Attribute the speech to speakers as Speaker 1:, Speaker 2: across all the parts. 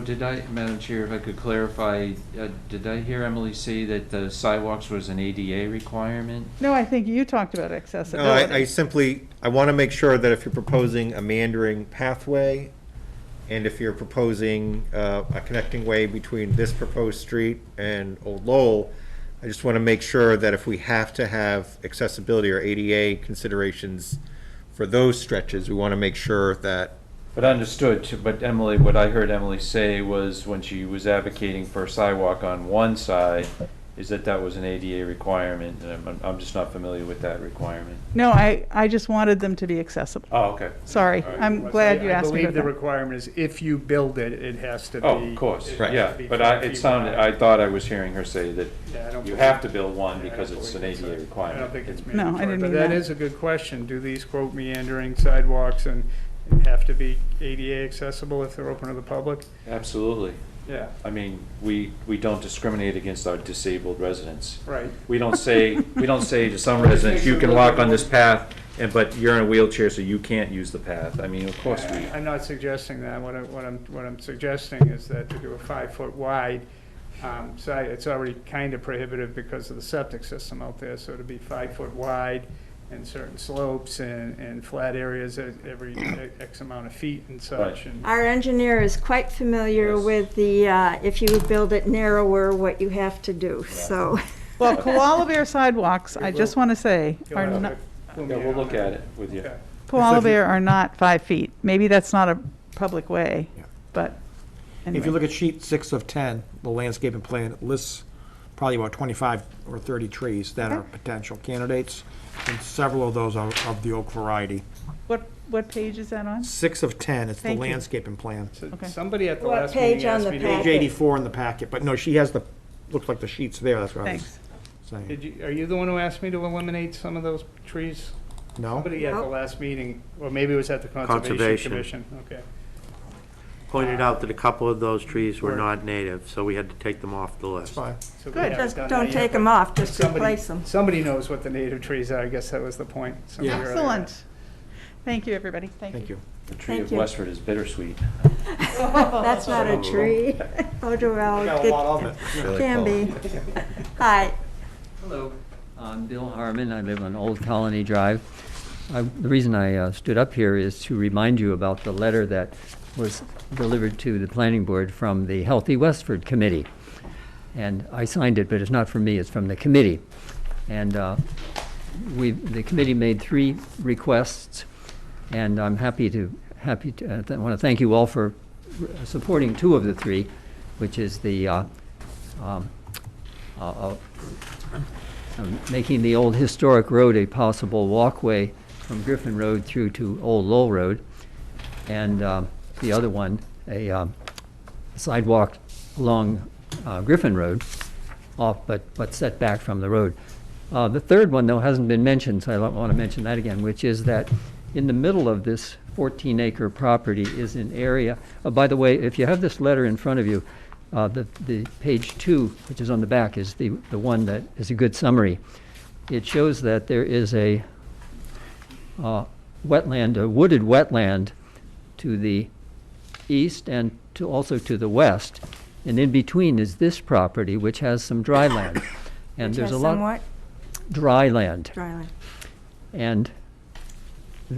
Speaker 1: Did I, Madam Chair, if I could clarify, uh, did I hear Emily say that the sidewalks was an ADA requirement?
Speaker 2: No, I think you talked about
Speaker 3: No, I, I
Speaker 2: accessibility.
Speaker 3: simply, I want to make sure that if you're proposing a meandering pathway, and if you're proposing uh, a connecting way between this proposed street and Old Lowell, I just want to make sure that if we have to have accessibility or ADA considerations for those stretches, we want to make sure that,
Speaker 1: But understood, too- but Emily, what I heard Emily say was when she was advocating for a sidewalk on one side, is that that was an ADA requirement, and I'm, I'm just not familiar with that requirement.
Speaker 2: No, I, I just wanted them to be accessible.
Speaker 1: Oh, okay.
Speaker 2: Sorry,
Speaker 1: All right.
Speaker 2: I'm glad you
Speaker 4: I-
Speaker 2: asked me
Speaker 4: I believe the
Speaker 2: about that.
Speaker 4: requirement is if you build it, it has to be.
Speaker 1: Oh, of course,
Speaker 4: it
Speaker 3: Right.
Speaker 1: yeah,
Speaker 4: has to be
Speaker 1: but I,
Speaker 4: five
Speaker 1: it
Speaker 4: feet
Speaker 1: sounded,
Speaker 4: wide.
Speaker 1: I thought I was hearing her say that
Speaker 4: Yeah, I don't
Speaker 1: you
Speaker 4: believe-
Speaker 1: have to build one
Speaker 4: Yeah, I
Speaker 1: because
Speaker 4: don't
Speaker 1: it's an
Speaker 4: believe
Speaker 1: ADA
Speaker 4: so.
Speaker 1: requirement.
Speaker 4: I don't think it's
Speaker 2: No, I
Speaker 4: mandatory.
Speaker 2: didn't mean
Speaker 4: But that
Speaker 2: that.
Speaker 4: is a good question. Do these quote meandering sidewalks and and have to be ADA accessible if they're open to the public?
Speaker 1: Absolutely.
Speaker 4: Yeah,
Speaker 1: I mean, we, we don't discriminate against our disabled residents.
Speaker 4: right.
Speaker 1: We don't say, we don't say to some residents, you can walk on this path, and, but you're in a wheelchair, so you can't use the path. I mean, of course we,
Speaker 4: I- I'm not suggesting that. What I, what I'm, what I'm suggesting is that to do a five-foot wide um, side, it's already kind of prohibitive because of the septic system out there, so to be five-foot wide and certain slopes and, and flat areas at every e-, X amount of feet and such.
Speaker 1: Right.
Speaker 4: and-
Speaker 5: Our engineer is quite familiar
Speaker 1: Yes.
Speaker 5: with the, uh, if you build it narrower, what you have to do, so.
Speaker 2: Well, koala bear sidewalks, I just want to say,
Speaker 4: You'll
Speaker 2: are
Speaker 4: have
Speaker 2: not,
Speaker 4: to pull me
Speaker 1: yeah, we'll
Speaker 4: out
Speaker 1: look
Speaker 4: on
Speaker 1: at
Speaker 4: that.
Speaker 1: it with you.
Speaker 4: Okay.
Speaker 2: koala bear are not five feet. Maybe that's not a public way,
Speaker 6: Yeah.
Speaker 2: but
Speaker 6: If you
Speaker 2: anyway.
Speaker 6: look at sheet six of 10, the landscaping plan it lists probably about 25 or 30 trees that are
Speaker 2: Okay.
Speaker 6: potential candidates, and several of those are of the oak variety.
Speaker 2: What, what page is that on?
Speaker 6: Six of 10, it's the
Speaker 2: Thank you.
Speaker 6: landscaping plan.
Speaker 4: So
Speaker 2: Okay.
Speaker 4: Somebody at the
Speaker 5: What
Speaker 4: last
Speaker 5: page
Speaker 4: meeting
Speaker 5: on
Speaker 4: asked
Speaker 5: the
Speaker 4: me,
Speaker 5: pack?
Speaker 6: Page 84 in the packet, but no, she has the, looks like the sheet's there, that's what I was
Speaker 2: Thanks.
Speaker 4: to-
Speaker 6: saying.
Speaker 4: did you, are you the one who asked me to eliminate some of those trees?
Speaker 6: No?
Speaker 4: Somebody at the
Speaker 5: Nope.
Speaker 4: last meeting, or maybe it was at the Conservation
Speaker 7: Conservation.
Speaker 4: Commission, okay.
Speaker 7: pointed out that a couple of those trees were
Speaker 4: Were-
Speaker 7: not native, so we had to take them off the
Speaker 6: It's
Speaker 7: list.
Speaker 6: fine.
Speaker 4: So we
Speaker 2: Good.
Speaker 4: haven't
Speaker 5: Just
Speaker 4: done
Speaker 5: don't
Speaker 4: that
Speaker 5: take
Speaker 4: yet,
Speaker 5: them
Speaker 4: but
Speaker 5: off, just
Speaker 4: somebody-
Speaker 5: replace them.
Speaker 4: Somebody knows what the native trees are, I guess that was the point. somebody
Speaker 6: Yeah.
Speaker 4: earlier.
Speaker 2: Excellent. Thank you, everybody. Thank
Speaker 6: Thank
Speaker 2: you.
Speaker 6: you.
Speaker 1: The tree of
Speaker 5: Thank you.
Speaker 1: Westford is bittersweet.
Speaker 5: That's not a tree. Oh,
Speaker 6: We
Speaker 5: well,
Speaker 6: got a lot of it.
Speaker 5: it can be. Hi.
Speaker 8: Hello, I'm Bill Harmon. I live on Old Colony Drive. I- The reason I uh, stood up here is to remind you about the letter that was delivered to the planning board from the Healthy Westford Committee. And I signed it, but it's not from me, it's from the committee. And uh, we, the committee made three requests, and I'm happy to, happy to, I want to thank you all for uh, supporting two of the three, which is the uh, um, uh, um, making the old historic road a possible walkway from Griffin Road through to Old Lowell Road, and um, the other one, a um, sidewalk along uh, Griffin Road, off, but, but set back from the road. Uh, The third one, though, hasn't been mentioned, so I don't want to mention that again, which is that in the middle of this 14-acre property is an area, oh, by the way, if you have this letter in front of you, uh, the, the page two, which is on the back, is the, the one that is a good summary. It shows that there is a uh, wetland, a wooded wetland to the east and to, also to the west. And in between is this property, which has some dry land. And there's a lot,
Speaker 5: Somewhat
Speaker 8: dry land.
Speaker 5: dry land.
Speaker 8: And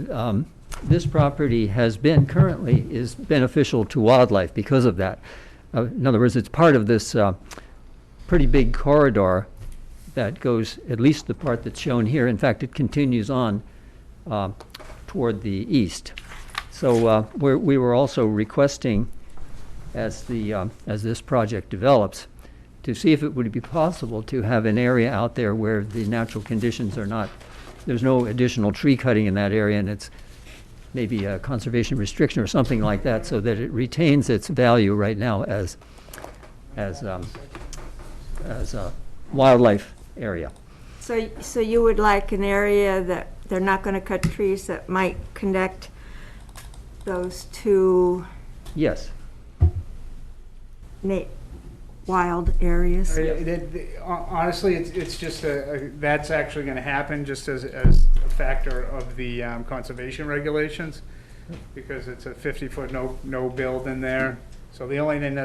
Speaker 8: um, this property has been, currently is beneficial to wildlife because of that. Uh, In other words, it's part of this uh, pretty big corridor that goes, at least the part that's shown here, in fact, it continues on uh, toward the east. So uh, we're- we were also requesting, as the, um, as this project develops, to see if it would be possible to have an area out there where the natural conditions are not, there's no additional tree cutting in that area, and it's maybe a conservation restriction or something like that, so that it retains its value right now as, as, um, as a wildlife area.
Speaker 5: So, so you would like an area that they're not going to cut trees that might connect those two
Speaker 8: Yes,
Speaker 5: na- wild areas?
Speaker 4: I- it- it- hon- Honestly, it's, it's just a, a- that's actually gonna happen just as, as a factor of the um, conservation regulations, because it's a fifty-foot no, no build in there, So the only thing that